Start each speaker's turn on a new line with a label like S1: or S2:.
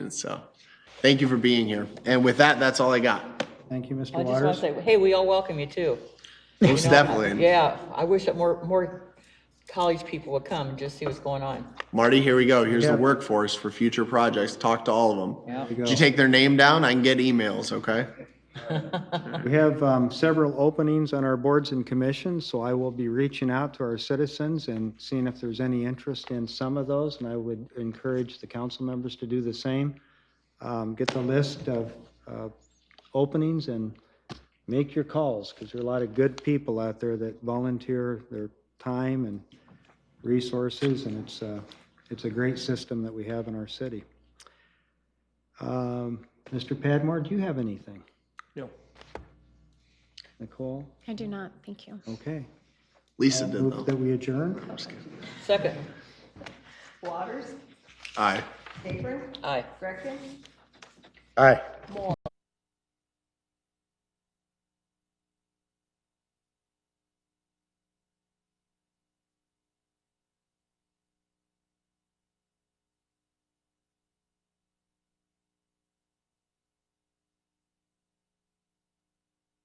S1: And so, thank you for being here. And with that, that's all I got.
S2: Thank you, Mr.
S3: I just want
S2: Waters.
S3: to say, hey, we all welcome you too.
S1: Most definitely.
S3: Yeah, I wish that more, more college people would come and just see what's going on.
S1: Marty, here we go. Here's the
S2: Yeah.
S1: workforce for future projects. Talk to all of them.
S3: Yeah.
S2: There you
S1: Did you
S2: go.
S1: take their name down? I can get emails, okay?
S2: We have um, several openings on our boards and commissions, so I will be reaching out to our citizens and seeing if there's any interest in some of those, and I would encourage the council members to do the same. Um, Get the list of uh, openings and make your calls, because there are a lot of good people out there that volunteer their time and resources, and it's, uh, it's a great system that we have in our city. Um, Mr. Padmore, do you have anything? Nicole?
S4: I do not, thank you.
S2: Okay.
S1: Lisa did
S2: Move
S1: though.
S2: that we adjourn?
S3: Second,
S5: Waters,
S1: Aye.
S5: Apron,
S3: aye.
S5: Greckin,
S2: Aye.